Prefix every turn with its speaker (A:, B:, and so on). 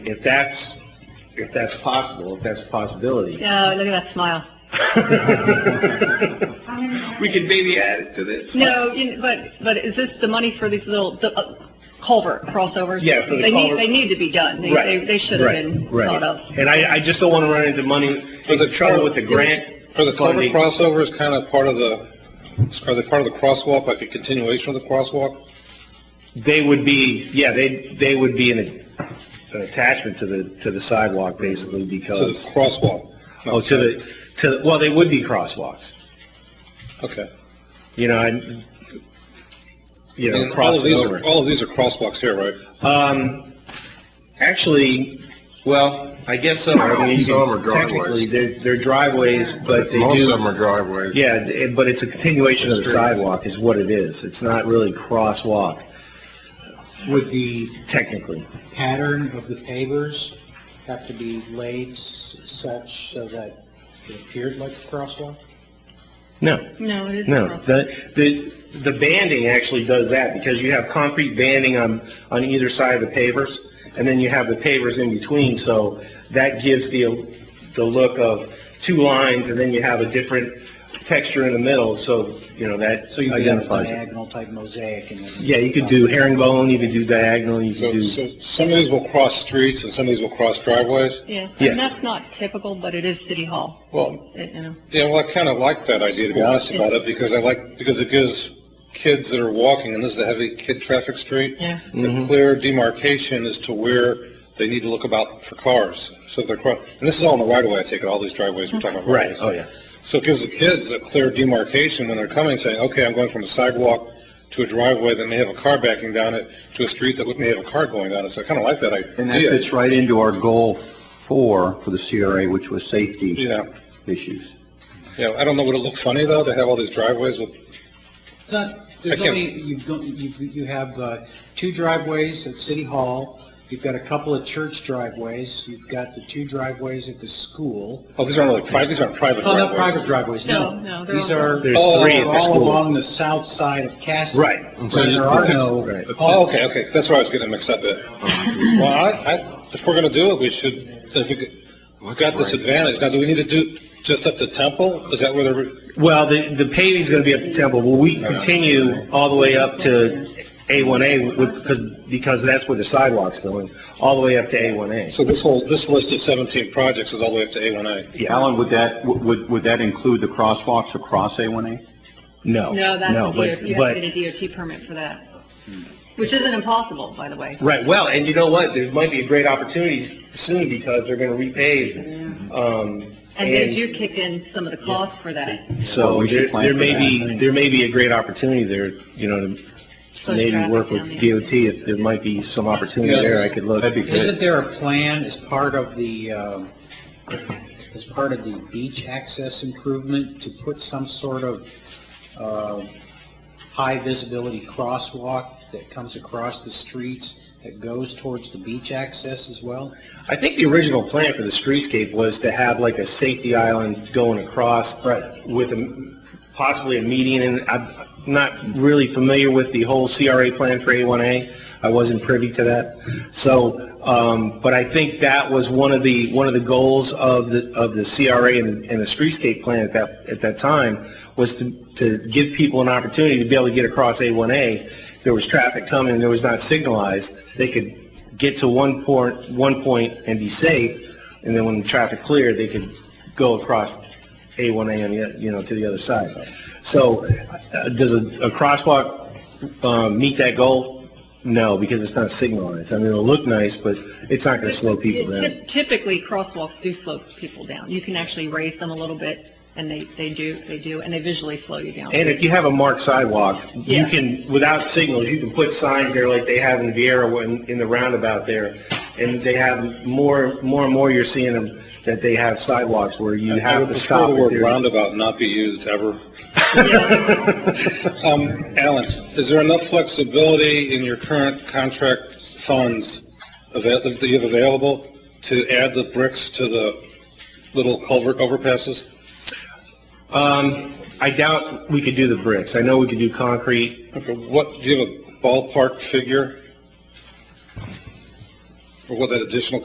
A: If that's, if that's possible, if that's a possibility,
B: No, look at that smile.
A: we could maybe add it to this.
B: No, you- but, but is this the money for these little the, uh, culvert crossovers?
A: Yeah, for the
B: They need,
A: culvert.
B: they need to be done. They,
A: Right,
B: they, they should have
A: right,
B: been
A: right.
B: thought of.
A: And I, I just don't want to run into money, into trouble with the grant.
C: Are the culvert
A: funding.
C: crossovers kind of part of the, are they part of the crosswalk, like a continuation of the crosswalk?
A: They would be, yeah, they, they would be an an attachment to the, to the sidewalk, basically,
C: To the
A: because,
C: crosswalk?
A: oh, to the, to, well, they would be crosswalks,
C: Okay.
A: you know, and, you know,
C: And all of
A: crossing
C: these are,
A: over.
C: all of these are crosswalks here, right?
A: Actually, well, I guess so. I mean, you
D: Some are
A: can-
D: driveways.
A: Technically, they're, they're driveways, but they do.
D: Most of them are driveways.
A: Yeah, it- but it's a continuation of the
D: Streets.
A: sidewalk is what it is. It's not really crosswalk,
E: Would the
A: technically.
E: pattern of the pavers have to be laid s- such so that it appeared like a crosswalk?
A: No,
B: No, it is.
A: no. The, the, the banding actually does that because you have concrete banding on, on either side of the pavers, and then you have the pavers in between, so that gives the, the look of two lines, and then you have a different texture in the middle, so, you know, that
E: So you could have a
A: identifies it.
E: diagonal type mosaic and then...
A: Yeah, you could do herringbone, you could do diagonal, you could
C: So,
A: do,
C: so some of these will cross streets and some of these will cross driveways?
B: Yeah,
A: Yes.
B: and that's not typical, but it is City Hall.
C: Well,
B: It- you know.
C: yeah, well, I kind of like that idea, to be honest about it, because I like, because it gives kids that are walking, and this is a heavy kid traffic street,
B: Yeah.
F: Mm-hmm.
C: a clear demarcation as to where they need to look about for cars. So if they're, cro- and this is all in the right of way, I take it, all these driveways we're talking about.
A: right,
C: driveways.
A: oh, yeah.
C: So it gives the kids a clear demarcation when they're coming, saying, okay, I'm going from a sidewalk to a driveway that may have a car backing down it, to a street that may have a car going down it. So I kind of like that
F: And that
C: idea.
F: fits right into our goal four for the CRA, which was safety
C: Yeah.
F: issues.
C: You know, I don't know, would it look funny though, to have all these driveways with,
E: It's not, there's
C: I can't-
E: only, you've, got- you you have uh, two driveways at City Hall, you've got a couple of church driveways, you've got the two driveways at the school.
C: oh, these aren't really private, these aren't private
E: Oh, not
C: driveways.
E: private driveways, no.
B: No, no, they're
E: These
B: all-
E: are
A: There's
E: all
A: three at the
E: all
A: school.
E: along the south side of Cass.
A: Right.
D: so
E: Where
D: you-
E: there are
D: it's a-
E: no.
A: right.
C: Oh, okay, okay, that's where I was getting mixed up at. Well, I, I, if we're gonna do it, we should, if we, could- we've got this advantage. Now, do we need to do just up to Temple? Is that where they're,
A: Well, the, the paving's gonna be up to Temple, will we continue all the way up to A1A, with- because- because that's where the sidewalk's going, all the way up to A1A?
C: so this whole, this list of 17 projects is all the way up to A1A?
A: Yes.
F: Alan, would that, would, would that include the crosswalks across A1A?
A: Oh, No.
B: No, that's a
A: but-
B: DOT, you have
A: but-
B: to get a DOT permit for that, which isn't impossible, by the way.
A: Right, well, and you know what, there might be great opportunities soon, because they're gonna repave, um,
B: And they
A: And-
B: do kick in some of the costs for that.
F: Well,
A: so
F: we should
A: there
F: plan
A: there
F: for
A: may
F: that.
A: be, there may be a great opportunity there, you know, to
B: Slow
A: maybe
B: traffic
A: work
B: down
A: with
B: there.
A: DOT, if there might be some opportunity
C: Yeah.
A: there, I could look.
F: That'd be
E: Isn't
F: good.
E: there a plan as part of the, um, as part of the beach access improvement to put some sort of uh, high visibility crosswalk that comes across the streets that goes towards the beach access as well?
A: I think the original plan for the streetscape was to have like a safety island going across.
E: Right.
A: With a, possibly a median, and I'm not really familiar with the whole CRA plan for A1A. I wasn't privy to that. So, um, but I think that was one of the, one of the goals of the, of the CRA and, and the streetscape plan at that, at that time was to, to give people an opportunity to be able to get across A1A. There was traffic coming, there was not signalized, they could get to one point, one point and be safe, and then when the traffic cleared, they could go across A1A on the, you know, to the other side. So, uh, does a, a crosswalk, uh, meet that goal? No, because it's not signalized. I mean, it'll look nice, but it's not gonna slow people
B: Typ-
A: down.
B: Typically, crosswalks do slow people down. You can actually raise them a little bit, and they, they do, they do, and they visually slow you down.
A: And if you have a marked sidewalk, you
B: Yeah.
A: can, without signals, you can put signs there like they have in Vieira when, in the roundabout there. And they have more, more and more you're seeing them, that they have sidewalks where you
C: I
A: have
C: would
A: to
C: prefer
A: stop.
C: the
A: if
C: word
A: there's-
C: roundabout not be used ever. Um, Alan, is there enough flexibility in your current contract funds ava- that you have available to add the bricks to the little culvert overpasses?
A: I doubt we could do the bricks. I know we could do concrete.
C: Okay, What, do you have a ballpark figure? Or what that additional